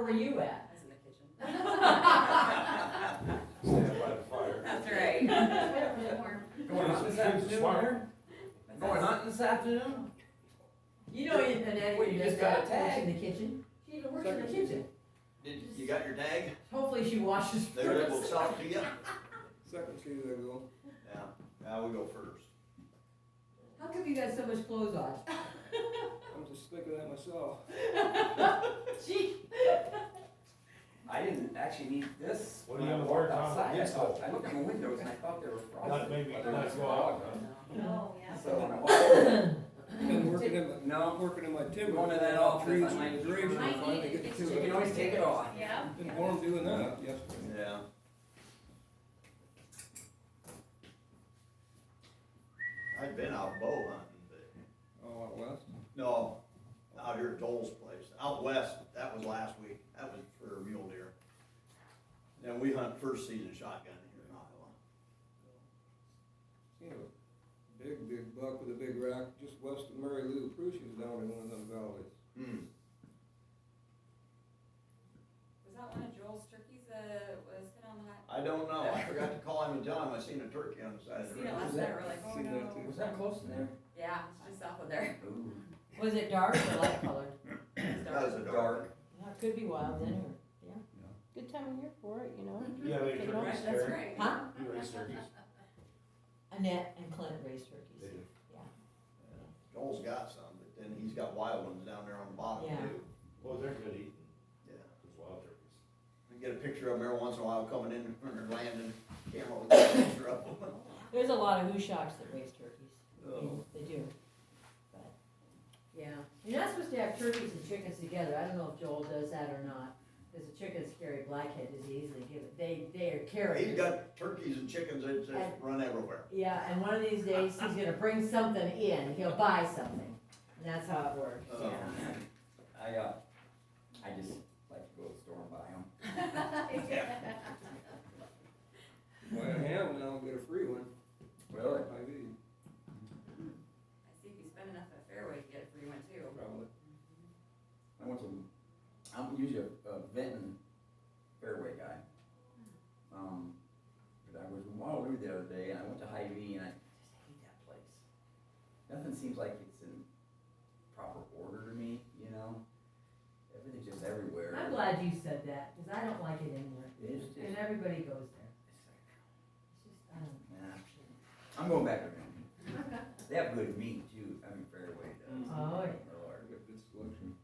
were you at? was in the kitchen. Stand by the fire. That's right. Going hunting this afternoon? Going hunting this afternoon? You know, in the net, Well, you you just just got got a works tag. in the kitchen. She even works in the kitchen. Did, you got your tag? Hopefully she washes There, first. we'll talk to you. Second Tuesday ago. Yeah, now we go first. How come you got so much clothes on? I'm just sick of that myself. She, I didn't actually need this. What when do you I have walked more time? outside. Yes, I thought- sir. I looked in the windows and I thought there were frogs. Not maybe, There not was go frogs. out, Oh, yeah. So when I walked, Been working in my, no, working in my timber. One of that off, Trees that's and like- trees and Might finally need get it. to It's you it. can always take it off. Yeah. Been warm doing that yesterday. Yeah. I'd been out bow hunting, but, Oh, out west. no, out here at Dole's place, out west, that was last week, that was for mule deer. Now, we hunt first season shotgun here in Iowa. Seen a big, big buck with a big rack just west of Mary Lou Prussia's down in one of them valleys. Hmm, Was that one of Joel's turkeys that was hit on the hot? I don't know, I forgot to call him and tell him I seen a turkey on the side of the Seen it road. last night, we're like, oh Seen that no. too. was that close in there? Yeah, it's just off of there. Ooh. was it dark or light colored? It's That was dark. a dark, Well, it Could be wild then, or, Good time of year for it, you know. Yeah, they Take it turkeys Right, that's there. right. huh? You raise turkeys. Annette and Clint raised They turkeys. do. Joel's got some, but then he's got wild ones down there on the bottom Yeah. too, Well, they're good eating, yeah. those wild turkeys. I get a picture of them every once in a while coming in when they're landing, camera will get a picture of them. There's a lot of hooshocks that raise turkeys. Oh. They do, but, yeah. You're not supposed to have turkeys and chickens together. I don't know if Joel does that or not, because the chickens carry blackhead disease. They give it, they, they are carriers. He's got turkeys and chickens that just run everywhere. Yeah, and one of these days, he's gonna bring something in, he'll buy something, and that's how it works, Oh. yeah. I, uh, I just like to go to the store and buy them. Buy a ham now and get a free one. Really? I do, I see if you spend enough at Fairway, you get a free one too. probably. I went to, I'm usually a, a Benton fairway guy. Um, but I was in Waterloo the other day and I went to Hy-Vee and I just hate that place. Nothing seems like it's in proper order to me, you know? Everything's just everywhere. I'm glad you said that, cause I don't like it anywhere, It is just, and it's everybody goes there, it's just, I don't like, nah, I'm going back to Benton. They have good meat too, I mean, fairway does. Oh, yeah. I Lord. got good selection.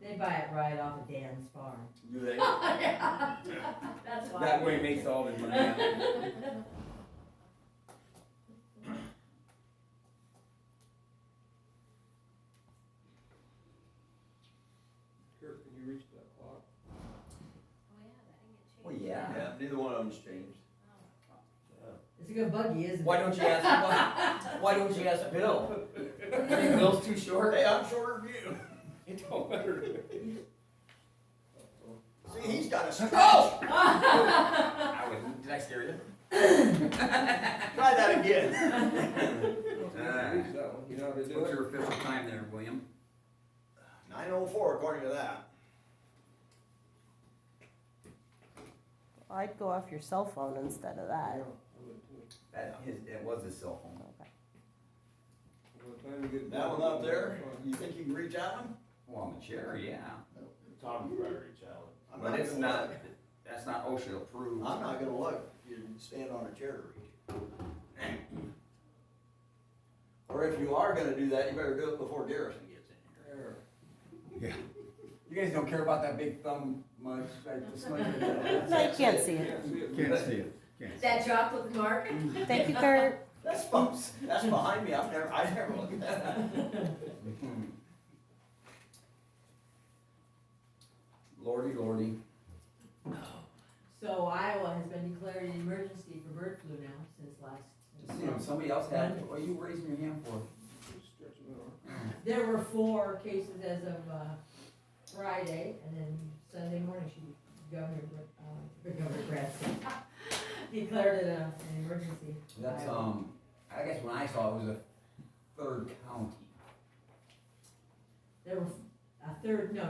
they buy it right off of Dan's farm. Do they? That's why. That way makes all the money out. Kirk, can you reach that clock? Well, yeah. Yeah, neither one of them's changed. It's a good buggy, isn't it? Why don't you ask, why, why don't you ask Bill? You think Bill's too short? Hey, I'm shorter than you. It don't matter. See, he's got a stroke. I was, did I scare you? Try that again. Reach that one, you know how to do Ah. What's it. your official time there, William? Nine oh four according to that. I'd go off your cell phone instead of that. Yeah, I would too. That, his, it was his cell phone. What time you get That back, one up I'm there, fine. you think you can reach out him? Well, on the chair, yeah. Tommy Prairie Challenge. I'm But not it's gonna not, look. that's not OSHA approved. I'm not gonna look, if you stand on a chair to reach. Or if you are gonna do that, you better do it before Garrison gets in here. There. You guys don't care about that big thumb much, like the smudge. I can't see it. Can't see it. Can't see it. That chocolate mark? Thank you, Kurt. That's, folks, that's behind me, I've never, I've never looked at that. hmm. Lordy, lordy. So Iowa has been declared an emergency for bird flu now since Just, you know, last. somebody else had, what are you raising your hand for? Stretch it out. There were four cases as of, uh, Friday, and then Sunday morning, she, Governor, uh, Governor Bradford declared it a, an emergency. That's, um, I guess when I saw it was a third county. There were a third, no,